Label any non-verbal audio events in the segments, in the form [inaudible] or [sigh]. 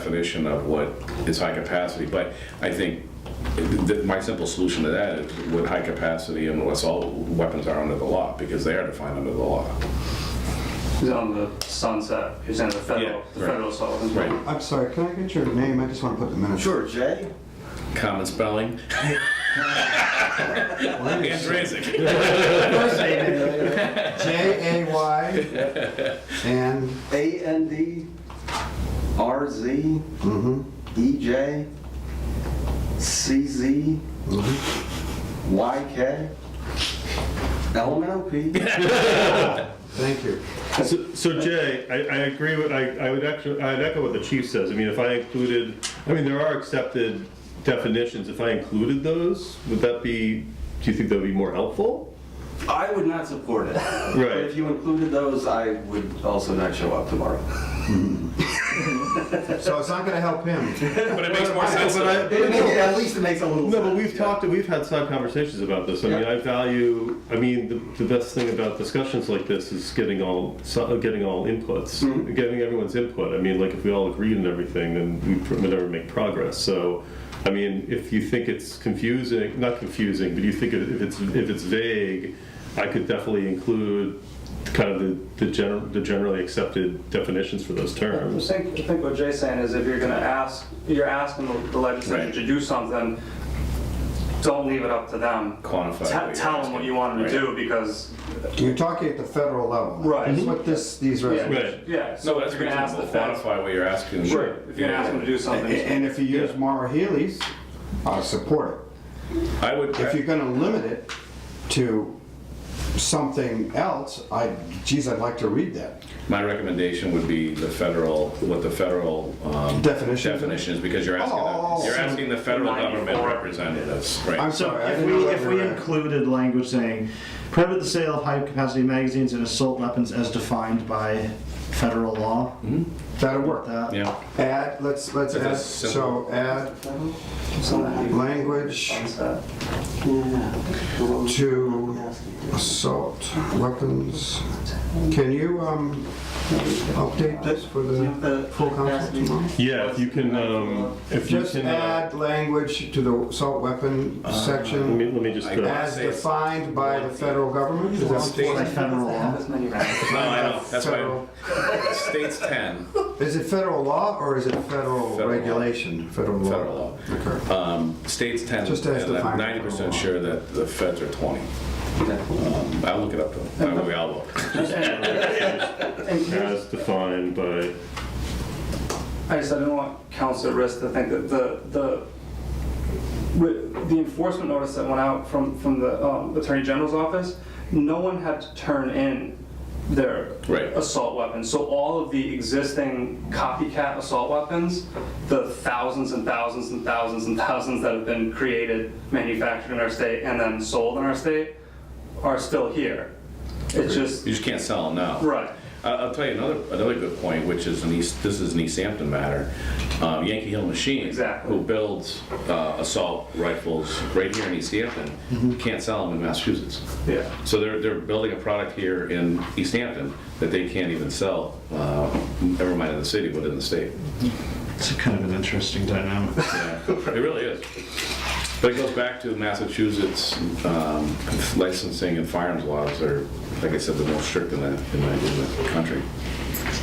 definition of what is high capacity, but I think that my simple solution to that is what high capacity and what's all weapons are under the law, because they are defined under the law. He's on the sunset, he's in the federal, Yeah, the right. federal solid. Right. I'm sorry, can I get your name? I just want to put the minutes. Sure, Jay? Common spelling, and raising. First name, J A Y and A N D R Z Mm-hmm. E J C Z Mm-hmm. Y K L M N O [laughs] P. thank you. So, so Jay, I, I agree with, I, I would actually, I'd echo what the chief says. I mean, if I included, I mean, there are accepted definitions. If I included those, would that be, do you think that would be more helpful? I would not support it. But if you included those, I would also not show up tomorrow. So it's not going to help him. [laughs] But it makes more sense. But I- It makes- At least it makes a little sense. No, but we've talked, we've had side conversations about this. I mean, Yeah. I value, I mean, the, the best thing about discussions like this is getting all, so- getting all inputs, Mm-hmm. getting everyone's input. I mean, like, if we all agreed on everything, then we pr- would never make progress. So, I mean, if you think it's confusing, not confusing, but you think if if it's, if it's vague, I could definitely include kind of the, the general, the generally accepted definitions for those I terms. think, I think what Jay's saying is if you're gonna ask, you're asking the legislature Right. to do something, don't leave it up to them. Quantify what Te- you're Tell them what asking. you want them to Right. do because, You're talking at the federal level. Right. That's what this, these resolutions. Right. yeah, No, so that's if you're gonna ask the reasonable, feds. quantify what you're asking. Sure, if you're gonna ask them to do And something. and if you use Mara Healy's, I support I would, it. If you're going to limit it to something else, I, geez, I'd like to read that. my recommendation would be the federal, what the federal um, Definition. definition is, because you're asking, Oh. the- you're asking the federal government 94. representatives, I'm right? So sorry. I if didn't we, know if that we were- included language saying, prohibit the sale of high-capacity magazines and assault weapons as defined by federal law, That'd work. that, Yeah. Add, let's, let's If add, it's simple. so add language to assault weapons. Can you, um, update this for the full council tomorrow? Yeah, if you can, um, if you Just can, uh, add language to the assault weapon let me, section let me just. Uh, I uh, as defined by the federal government? Is that- by federal law. No, I know, that's why, Federal- state's 10, Is it federal law or is it federal Federal law. regulation? Federal Federal law. law. Okay. um, state's 10, Just as and I'm defined. 90% sure that the feds are 20. Um, I'll look it up, though, Uh, we all will. As defined by, I just, I didn't want council at risk to think that the, the, with the enforcement notice that went out from, from the um, Attorney General's office, no one had to turn in their Right. assault weapons. So all of the existing copycat assault weapons, the thousands and thousands and thousands and thousands that have been created, manufactured in our state, and then sold in our state, are still here. It's just, You just can't sell them now. right. I- I'll tell you another, another good point, which is an East, this is an East Hampton matter. Um, Yankee Hill Machine. Exactly. Who builds uh, assault rifles right here in East Mm-hmm. Hampton, can't sell them in Massachusetts. Yeah. So they're, they're building a product here in East Hampton that they can't even sell, uh, never mind in the city, but in the state. It's kind of an interesting dynamic. Yeah, It really is. But it goes back to Massachusetts um, licensing and firearms laws are, like I said, the most strict in the, in the- in the country.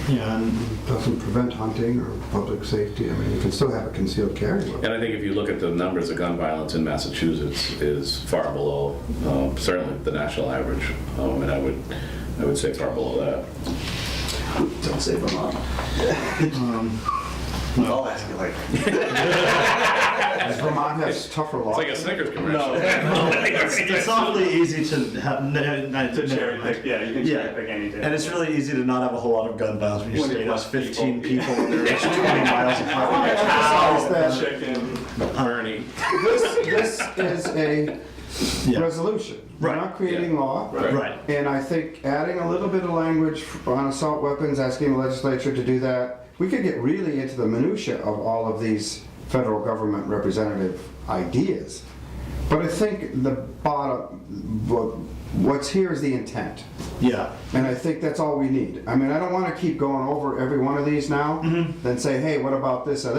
Yeah, and Doesn't prevent hunting or public safety. I mean, you can still have a concealed carry weapon. And I think if you look at the numbers of gun violence in Massachusetts is far below, um, certainly the national average, um, and I would, I would say far below that. Don't say Vermont. I'll ask you later. Does Vermont has tougher laws? It's like a Snickers commercial. it's awfully easy to have, no, no, To never cherry mind. pick, yeah, you can Yeah, cherry pick any day. and it's really easy to not have a whole lot of gun violence when you When you state has left people. 15 people and they're each 20 miles I apart. emphasize that Chicken. Bernie. This, this is a Yeah. resolution. We're not Right. creating Yeah. law. Right. Right. And I think adding a little bit of language on assault weapons, asking the legislature to do that, we could get really into the minutia of all of these federal government representative ideas. But I think the bottom, what what's here is the intent. Yeah. And I think that's all we need. I mean, I don't want to keep going over every one of these now, then say, hey, what about this or that?